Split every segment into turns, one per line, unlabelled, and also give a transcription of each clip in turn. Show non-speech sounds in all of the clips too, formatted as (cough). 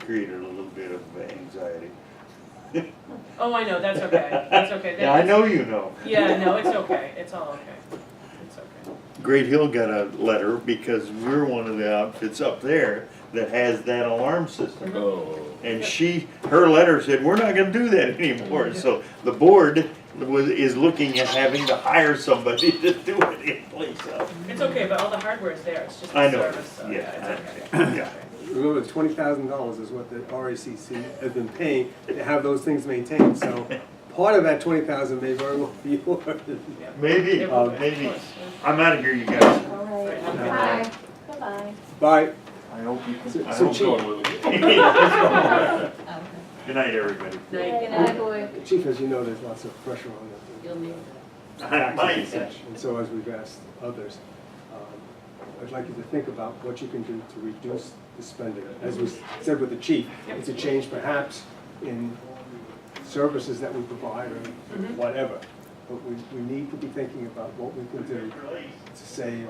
created a little bit of anxiety.
Oh, I know, that's okay, that's okay.
(laughs) Yeah, I
That-
know you know.
Yeah, no, it's okay, it's all okay, it's okay.
Great Hill got a letter because we're one of the outfits up there that has that alarm system.
Mm-hmm.
Oh.
And she, her letter said, we're not gonna do that
Mm-hmm.
anymore, so the board was, is looking at having to hire somebody (laughs) to do it in place of.
It's okay, but all the hardware is there, it's just
I
the
know.
service, so,
Yeah,
yeah, it's
I
okay.
Yeah.
Remember, twenty thousand dollars is what the RACC has been paying to have those things maintained, so part of that twenty thousand may very well be (laughs) yours.
Yeah.
Maybe, uh,
It will be, of
maybe.
course, yeah.
I'm out of here, you guys.
All right.
Bye.
Bye. Bye-bye.
Bye.
I hope you
So-
I
so
hope-
I'm going with it.
(laughs) Good night, everybody.
Good
Night,
night, boy.
Chief, as you know, there's lots of pressure on the
you'll need that.
(laughs) Bye.
And so as we've asked others, um, I'd like you to think about what you can do to reduce the spending. As was said with the chief, it's a change perhaps in services that we provide or
Mm-hmm.
whatever. But we, we need to be thinking about what we can do to save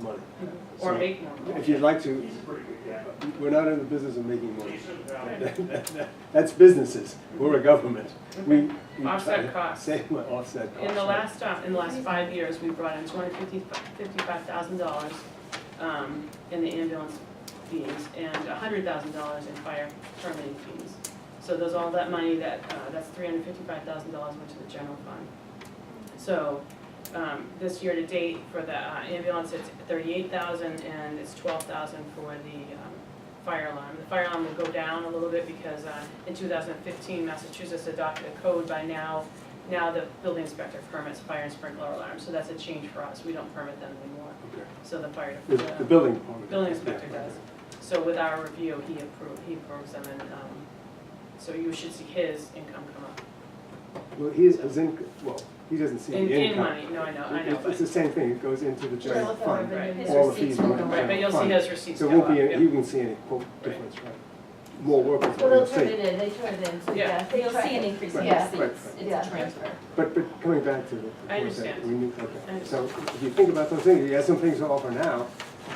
money.
Mm-hmm. Or
So
make more.
If you'd like to, we're not in the business of making money. (laughs) That's businesses, we're a government. We we try
Offset
to
costs.
Save money, offset costs.
In the
right.
last, uh, in the last five years, we brought in two hundred fifty, fifty-five thousand dollars, um, in the ambulance fees and hundred thousand dollars in fire permitting fees. So those, all that money that, uh, that's three hundred fifty-five thousand dollars went to the general fund. So, um, this year to date for the uh, ambulance, it's thirty-eight thousand and it's twelve thousand for the, um, fire alarm. The fire alarm will go down a little bit because, uh, in two thousand and fifteen, Massachusetts adopted a code by now now the building inspector permits fire and sprinkler alarms, so that's a change for us, we don't permit them anymore.
Okay.
So the fire,
The the
the
building department.
building inspector
Yeah.
does. So with our review, he approved, he approves them and, um, so you should see his income come up.
Well, he is, his inc- well, he doesn't see the
In, in
income.
money, no, I know, I
It-
know,
It's the
but,
same thing, it goes into the general
Well,
fund.
right.
his
All the
receipts
fees
will
go
go
into the
right,
up.
but you'll see
fund.
his receipts
So it
go
won't
up,
be,
yeah.
any- he won't see any quote difference, right? More workers
Well,
will
they'll
the
turn
state.
it in, they turn it in, so
Yeah.
yeah, you'll see an increase in
Right,
receipts,
right,
it's
right.
Yeah.
a transfer.
But, but coming back to the. the
I
point that
understand.
We need,
I
okay, so
understand.
if you think about those things, he has some things to offer now,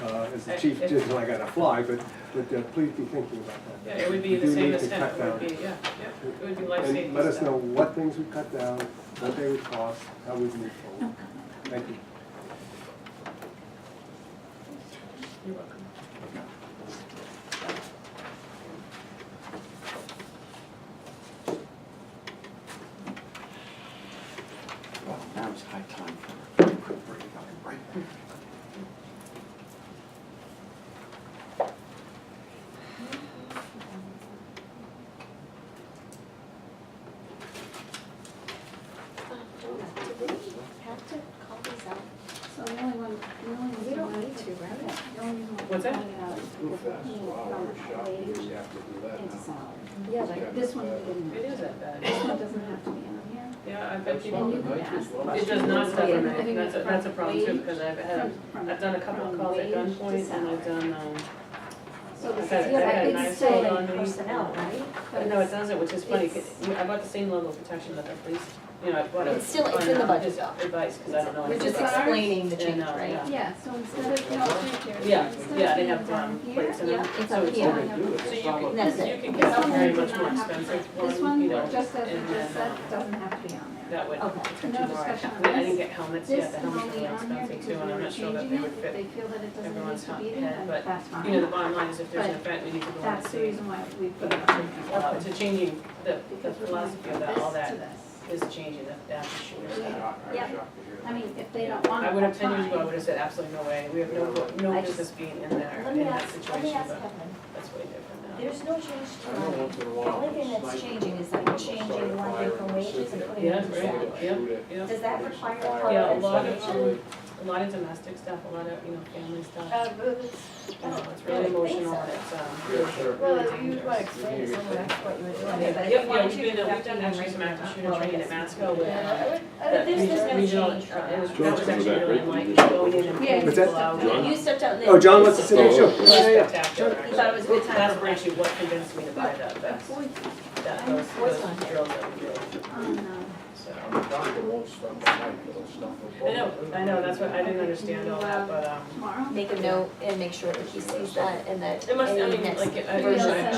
uh, as the
I-
chief
if-
just, I gotta fly, but, but uh, please be thinking about that.
Yeah, it would be
We
the
do
same
need
as
to
him,
cut
it would
down.
be, yeah, yeah, it would be life safety
And let us
stuff.
know what things we cut down, what they would cost, how we'd move forward. Thank you.
You're welcome.
Well, now it's high time for a quick break, I'll be right back.
Do we have to call these out?
So the only one, the only reason.
We don't
why-
need to, right?
The only reason why.
What's that?
I'm calling it out is
Move
because
fast.
we moved
Wow,
from
we're shocked.
wage
We have to do that
into
now.
salary.
Yeah,
but-
This one we didn't.
It is that bad,
This one doesn't have to be on here.
yeah, I bet
And
people,
you can ask the
it
question.
does not
from-
separate,
I think
that's a,
from
that's a problem too,
wage-
because I've had,
from- from-
I've done a couple of
from
calls at
wage to
gunpoint and I've done,
salary.
um,
So this is,
I've had- I've
yeah,
had
it's
knives
still,
pulled on
but
me.
Personnel, right?
But no, it doesn't, which is funny, 'cause
It's-
I bought the same level of protection that the police, you know, I bought it.
It's still- it's in the budget, though.
Advice, because I don't know.
We're
anything
just
about it.
explaining the
And,
change,
uh,
right?
Yeah, so instead of, no, it's right there.
Yeah,
Instead of
yeah, they
being
have, um,
down here,
plates and
yeah,
everything.
it's
So
up
it's
here.
all
I have a-
So you
That's
can,
it.
you can
This
get some
one
very
does
much
not
more
have to be-
expensive
This
one, you know,
one, just
and
as we just
then,
said,
um,
doesn't have to be on there.
that would,
Okay.
it's too
No
more,
discussion on
I didn't
this.
get helmets
This
yet, the
is
helmets are
only
really
on here
expensive
because
too, and I'm
we're
not sure that
changing
they would
it, if they
fit.
feel that it doesn't need
everyone's
to be
head,
there,
but,
then that's
You know, the
fine.
bottom line is if there's an
But
event, we need to go on and
That's the
see.
reason why we put
But,
it on there.
uh, to changing, the, the
Because we're
philosophy
moving
of that,
this
all
to
that is
this.
changing, that, that issue.
Yeah. I mean, if they don't want
I
it,
would have,
that's
ten years ago, I
fine.
would have said absolutely no way, we have no, no
I just-
business being in there,
Let
in
me
that
ask, let me
situation,
ask
but
Kevin,
that's way different now.
there's no change to
I
money.
don't want
The
to allow
only thing that's
sniper
changing is that
on
you're
the side
changing
of
one
fire
year from
and
wages
sit
and
there.
putting it
Yeah,
in
right,
salary.
yeah,
Shoot it.
yeah.
Does that require
Yeah, a lot
a lot
of,
of
um, a lot of domestic stuff, a lot of, you know, family
Uh,
stuff.
but it's,
You know, it's really emotional and it's, um.
Yeah, sure.
well, you would want to explain to someone else what you were doing, but
Yeah,
if
yeah,
you wanted
we've
to.
been, uh,
that
we've done
would be
actually some
great.
active shooter
Well, I
training at
guess-
Masco with.
Yeah,
uh,
I would- I would- There's,
regional-
there's no
regional,
change for
uh, it was-
that.
That
John's
was
coming
actually
back,
really like going in
right?
and
Yeah,
pulling
but that-
people out.
John?
You stepped out there.
Oh, John wants to sit in
Oh,
the show.
okay.
Yeah, yeah, yeah.
Spectacular,
You thought it was a good time
That's
for
actually what convinced me to buy that, that's,
Boy,
that, those,
What's
those
on here?
drills that we did,
oh, no.
so.
The doctor won't stop the night, he'll stop the
I know, I know, that's what, I didn't understand all that, but, um.
Tomorrow?
Make a note and make sure that he sees that and that
It must, I
any
mean,
next
like, I
Maybe I'll
version
send